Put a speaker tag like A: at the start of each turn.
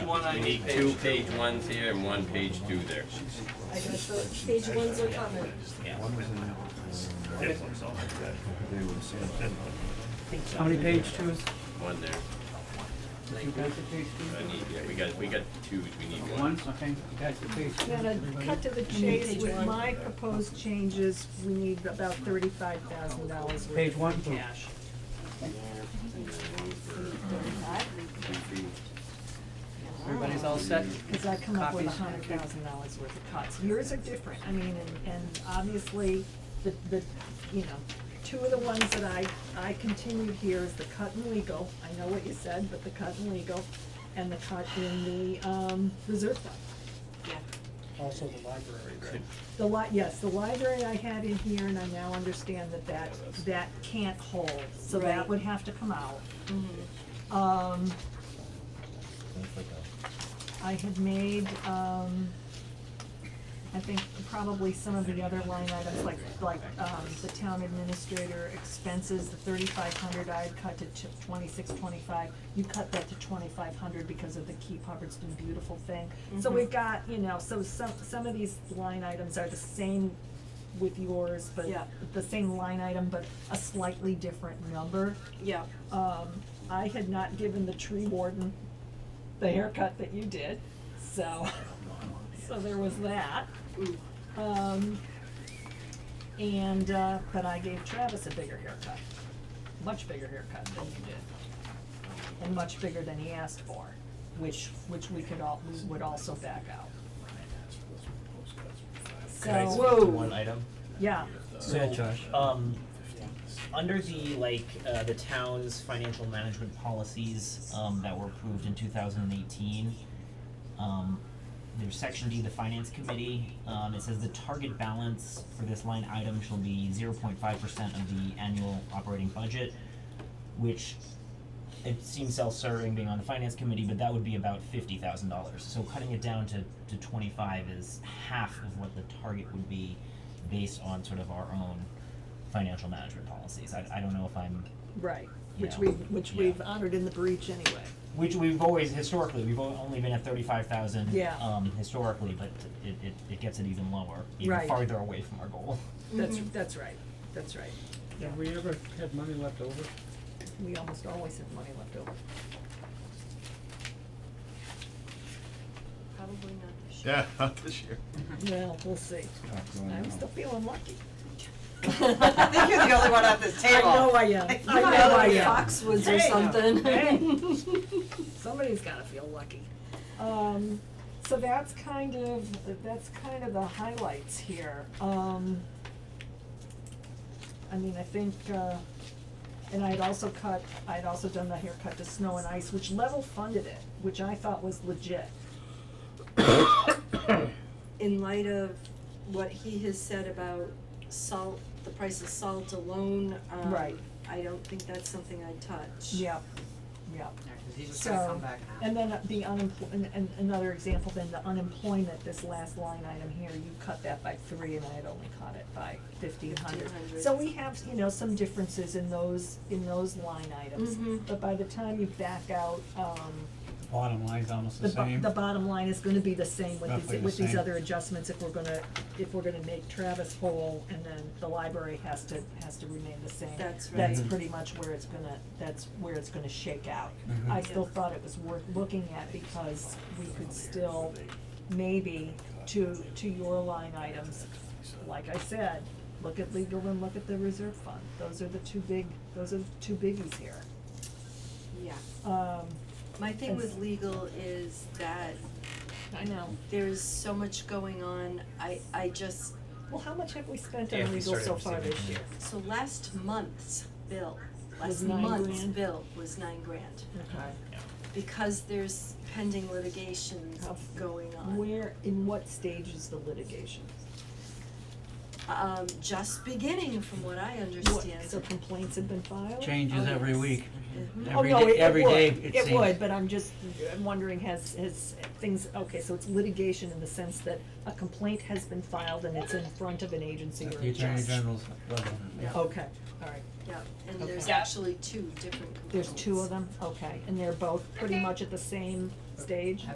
A: You need two page ones here and one page two there.
B: Page one's are coming.
C: How many page twos?
A: One there.
C: You guys are page
A: I
C: twos?
A: need, yeah, we got, we got twos, we need one.
C: One, okay, you guys are page twos,
D: Now, to
C: everybody?
D: cut to the chase, with my proposed changes, we need about thirty-five thousand dollars worth
C: Page
D: of
C: one, two.
D: cash.
C: Everybody's all set?
D: Because I come up with a
C: Copies.
D: hundred thousand dollars worth of cuts. Yours are different, I mean, and, and obviously, the, the, you know, two of the ones that I, I continued here is the cut in legal, I know what you said, but the cut in legal, and the cut in the, um, reserve fund.
E: Also the library, right?
D: The li- yes, the library I had in here, and I now understand that that, that can't hold, so that
B: Right.
D: would have to come out. Um, I had made, um, I think probably some of the other line items, like, like, um, the town administrator expenses, the thirty-five hundred, I had cut to twenty-six, twenty-five. You cut that to twenty-five hundred because of the Keep Hubbardston Beautiful thing. So we've got, you know, so some, some of these line items are the same with yours, but
B: Yeah.
D: the same line item, but a slightly different number.
B: Yeah.
D: Um, I had not given the tree warden the haircut that you did, so, so there was that. Um, and, uh, but I gave Travis a bigger haircut, much bigger haircut than you did. And much bigger than he asked for, which, which we could all, we would also back out.
F: Can I
D: So,
F: speak to one item?
D: yeah,
F: So, um, under the, like, uh, the town's financial management policies, um, that were approved in two thousand and eighteen, um, there's section D, the finance committee, um, it says the target balance for this line item shall be zero point five percent of the annual operating budget, which it seems self-serving being on the finance committee, but that would be about fifty thousand dollars. So cutting it down to, to twenty-five is half of what the target would be based on sort of our own financial management policies. I, I don't know if I'm,
D: right, which
F: Yeah.
D: we, which
F: Yeah.
D: we've honored in the breach anyway.
F: which we've always, historically, we've o- only been at thirty-five thousand,
D: Yeah.
F: um, historically, but it, it, it gets it even lower,
D: Right.
F: even farther away from our goal.
D: That's, that's right, that's right.
C: Have we ever had money left over?
D: We almost always have money left over.
B: Probably not this year.
G: Yeah, not this year.
D: Well, we'll see. I'm still feeling lucky.
H: I think you're the only one at this
D: I
H: table.
D: know I am. I
B: You
D: know
B: might
D: I
B: live in
D: am.
B: Foxwoods
D: Hey,
B: or
D: now,
B: something.
D: Somebody's gotta feel lucky. Um, so that's kind of, that's kind of the highlights here. Um, I mean, I think, uh, and I'd also cut, I'd also done the haircut to snow and ice, which level funded it, which I thought was legit.
B: In light of what he has said about salt, the price of salt alone, um,
D: Right.
B: I don't think that's something I'd touch.
D: Yep, yep.
H: Yeah, 'cause he's just gonna
D: So,
H: come back now.
D: and then the unemploy, and, and another example, then the unemployment, this last line item here, you cut that by three and I had only cut it by fifteen hundred.
B: 1,500.
D: So we have, you know, some differences in those, in those line items,
B: Mhm.
D: but by the time you back out, um,
C: Bottom line's almost
D: the
C: the
D: bo-
C: same.
D: the bottom line is gonna be the same with
C: Roughly
D: these,
C: the
D: with these
C: same.
D: other adjustments if we're gonna, if we're gonna make Travis whole and then the library has to, has to remain the same.
B: That's
D: That's
C: Mm-hmm.
B: right.
D: pretty much where it's gonna, that's where it's gonna shake out.
C: Mhm.
D: I still thought it was worth looking at because we could still maybe to, to your line items, like I said, look at legal and look at the reserve fund. Those are the two big, those are the two biggies here.
B: Yeah.
D: Um,
B: My thing
D: It's-
B: with legal is that
D: I know.
B: there's so much going on, I, I just,
D: Well, how much have we spent
F: Yeah,
D: on
F: we
D: legal so
F: started
D: far
F: receiving
D: this year?
B: so last month's bill, last
D: Was nine
B: month's
D: grand?
B: bill was nine grand.
D: Okay.
B: Because there's pending litigation
D: How-
B: going on.
D: Where, in what stage is the litigation?
B: Um, just beginning from what I
D: What,
B: understand.
D: so complaints have been filed?
C: Changes
B: Oh,
C: every
B: yes.
C: week.
B: Mhm.
C: Every day- every day,
D: Oh, no,
C: it
D: it- it would, it
C: seems.
D: would, but I'm just, I'm wondering, has, has things, okay, so it's litigation in the sense that a complaint has been filed and it's in front of an agency
C: At
D: or
C: The
D: a
C: Attorney
D: judge.
C: General's level.
B: Yeah.
D: Okay, all right,
B: Yeah, and
D: Okay.
B: there's
D: Yeah.
B: actually two different components.
D: there's two of them, okay, and they're both pretty much at the same stage.